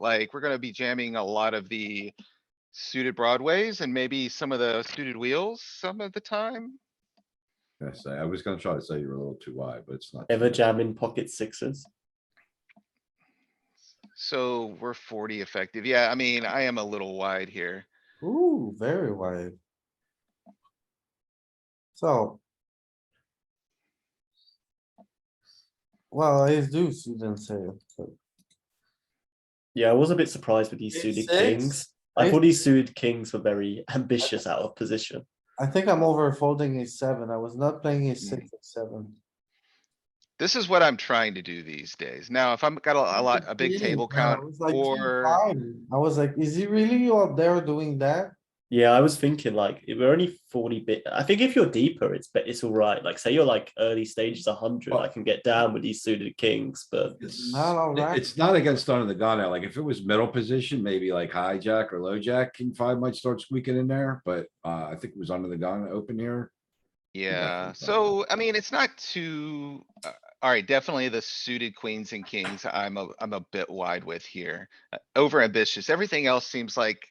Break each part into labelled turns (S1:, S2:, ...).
S1: Like, we're gonna be jamming a lot of the suited broadways and maybe some of the suited wheels some of the time.
S2: I say, I was gonna try to say you're a little too wide, but it's not.
S3: Ever jam in pocket sixes?
S1: So we're forty effective. Yeah, I mean, I am a little wide here.
S3: Ooh, very wide.
S4: So. Well, ace deuce, you didn't say it. but-
S3: Yeah, I was a bit surprised with these
S4: Ace
S3: suited
S4: six?
S3: kings. I
S4: Ace-
S3: thought these suited kings were very ambitious out of position.
S4: I think I'm over folding a seven. I was not playing a six or seven.
S1: This is what I'm trying to do these days. Now, if I'm got a a lot, a big table
S4: Yeah, I
S1: count
S4: was like,
S1: or-
S4: fine. I was like, is he really out there doing that?
S3: Yeah, I was thinking like if we're only 40 bit. I think if you're deeper, it's bet it's all right. Like say you're like early stages 100, I can get down with these suited kings, but
S2: It's,
S4: Not all
S2: it-
S4: right.
S2: it's not against under the gun now. Like if it was middle position, maybe like hijack or low jack, king five might start squeaking in there, but uh, I think it was under the gun open here.
S1: Yeah,
S2: definitely
S1: so I mean, it's not too, uh, alright, definitely the suited queens and kings, I'm a, I'm a bit wide with here. Uh, Over ambitious, everything else seems like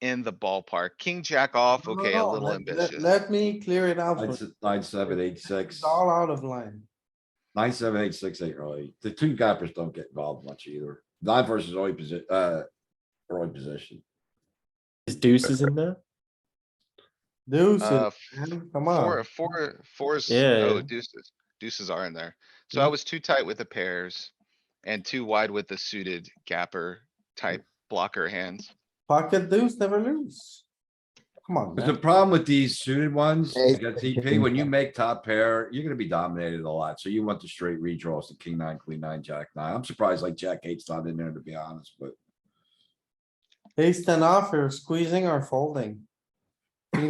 S1: in the ballpark. King jack off,
S4: No, no,
S1: okay, a
S4: no,
S1: little
S4: Oh, let- let-
S1: ambitious.
S4: Let me clear it out.
S2: Nine
S4: for
S2: se- nine, seven, eight,
S4: It's
S2: six,
S4: all out of line.
S2: nine, seven, eight, six, eight, early. The two gappers don't get involved much either. Nine versus early position, uh, early position.
S3: is deuces in there?
S4: Deuce,
S1: Uh,
S4: man, come
S1: Four,
S4: on.
S1: four, fours,
S3: Yeah,
S1: oh
S3: yeah.
S1: deuces, deuces are in there. So
S4: Mm-hmm.
S1: I was too tight with the pairs and too wide with the suited gapper
S4: Mm.
S1: type blocker hands.
S4: Pocket deuce, never lose. Come on,
S2: But the
S4: man.
S2: problem with these suited ones,
S5: Ace,
S2: against
S5: king,
S2: TP, when you
S5: jack.
S2: make top pair, you're gonna be dominated a lot, so you want the straight redraws, the king nine, queen nine, jack nine. I'm surprised like jack eight's not in there, to be honest, but.
S4: Ace ten off, you're squeezing or folding.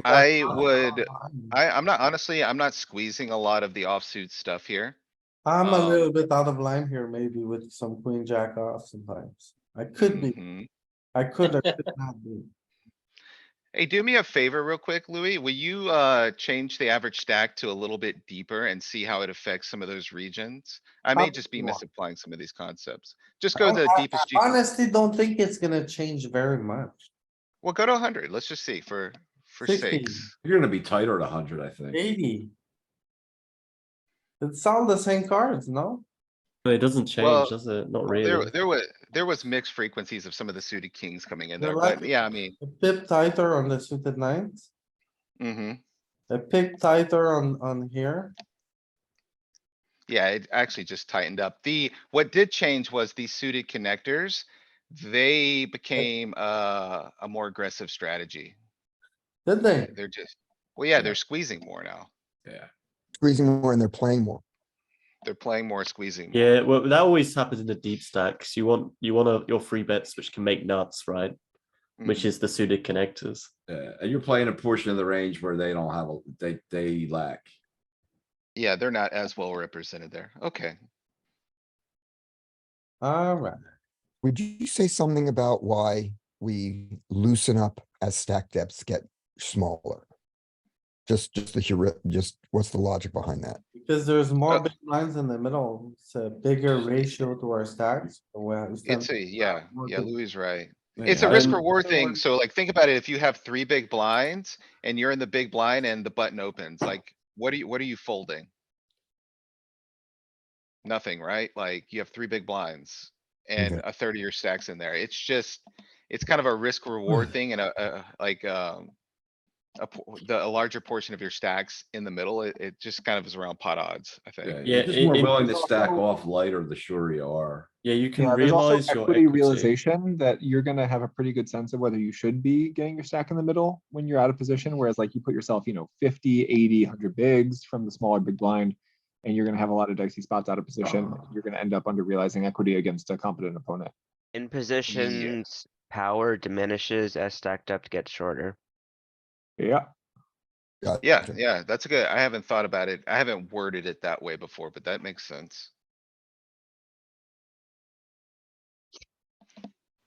S1: I would, I, I'm not, honestly, I'm not squeezing a lot of the offsuit stuff here.
S4: I'm a
S1: um,
S4: little bit out of line here, maybe with some queen jack off sometimes. I could be,
S1: Mhm.
S4: I could or could not be.
S1: Hey, do me a favor real quick, Louis. Will you, uh, change the average stack to a little bit deeper and see how it affects some of those regions? I may just be
S4: Absolutely.
S1: misapplying some of these concepts. Just go to the
S4: I-
S1: deepest. you-
S4: Honestly, don't think it's gonna change very much.
S1: Well, go to hundred. Let's just see for, for
S4: 16.
S1: sakes.
S2: You're gonna be tighter at hundred, I think.
S4: Eighty. It's all the same cards, no?
S3: But it doesn't change,
S1: Well,
S3: does it? Not really.
S1: There, there was, there was mixed frequencies of some of the suited kings coming in
S4: They're
S1: there, but
S4: lucky.
S1: yeah, I mean,
S4: A pip tighter on the suited nines,
S1: hmm
S4: a pip tighter on, on here.
S1: Yeah, it actually just tightened up. The, what did change was the suited connectors. They became, uh, a more aggressive strategy.
S4: Did they?
S1: They're just, well, yeah, they're squeezing more now.
S2: Yeah.
S5: squeezing more and they're playing more.
S1: They're playing more, squeezing. more.
S3: Yeah, well, that always happens in the deep stacks. You want you want a, your free bets which can make nuts, right? Which
S1: Mhm.
S3: is the suited connectors.
S2: Yeah, and you're playing a portion of the range where they don't have, a they, they lack.
S1: Yeah, they're not as well represented there. Okay.
S4: Alright,
S5: Would you say something about why we loosen up as stack depths get smaller? Just, just the, heuris- just what's the logic behind that?
S4: because there's more
S1: Uh,
S4: big lines in the middle, it's a bigger ratio to our stacks. so we understand-
S1: It's a, yeah,
S4: more
S1: yeah,
S4: good.
S1: Louis is right. It's a
S3: Yeah.
S1: risk
S3: Um,
S1: reward thing.
S4: one-
S1: So like, think about it. If you have three big blinds and you're in the big blind and the button opens, like, what are you, what are you folding? Nothing, right? Like you have three big blinds and a third of your stacks in there. It's just, it's kind of a risk reward thing and a, a, like, um. A, po- the, a larger portion of your stacks in the middle, it, it just kind of is around pot odds, I
S2: Yeah,
S1: think.
S3: Yeah,
S2: you're just
S3: it-
S2: more
S3: it-
S2: willing to stack off lighter the shorter you are.
S3: Yeah, you can
S6: Yeah, there's also
S3: realize your
S6: equity realization that you're gonna have a pretty good sense of whether you should be getting your stack in the middle when you're out of position, whereas like you put yourself, you know, 50, 80, 100 bigs from the smaller big blind, and you're gonna have a lot of dicey spots out of position.
S3: Ah.
S6: You're gonna end up under realizing equity against a competent opponent.
S7: In positions, power diminishes as stacked up gets shorter.
S6: Yeah,
S5: Uh,
S1: Yeah,
S5: Gotcha.
S1: yeah, that's a good, I haven't thought about it. I haven't worded it that way before, but that makes sense.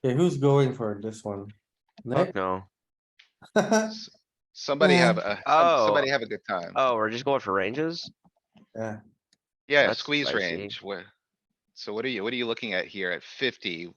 S4: Okay, who's going for this one?
S7: Fuck
S4: Nick?
S7: no.
S1: S- Somebody
S5: Yeah.
S1: have a, some-
S7: Oh.
S1: somebody have a good time.
S7: Oh, we're just going for ranges?
S4: Yeah,
S1: Yeah,
S7: that's
S1: squeeze
S7: spicy.
S1: range, where? So what are you, what are you looking at here at fifty?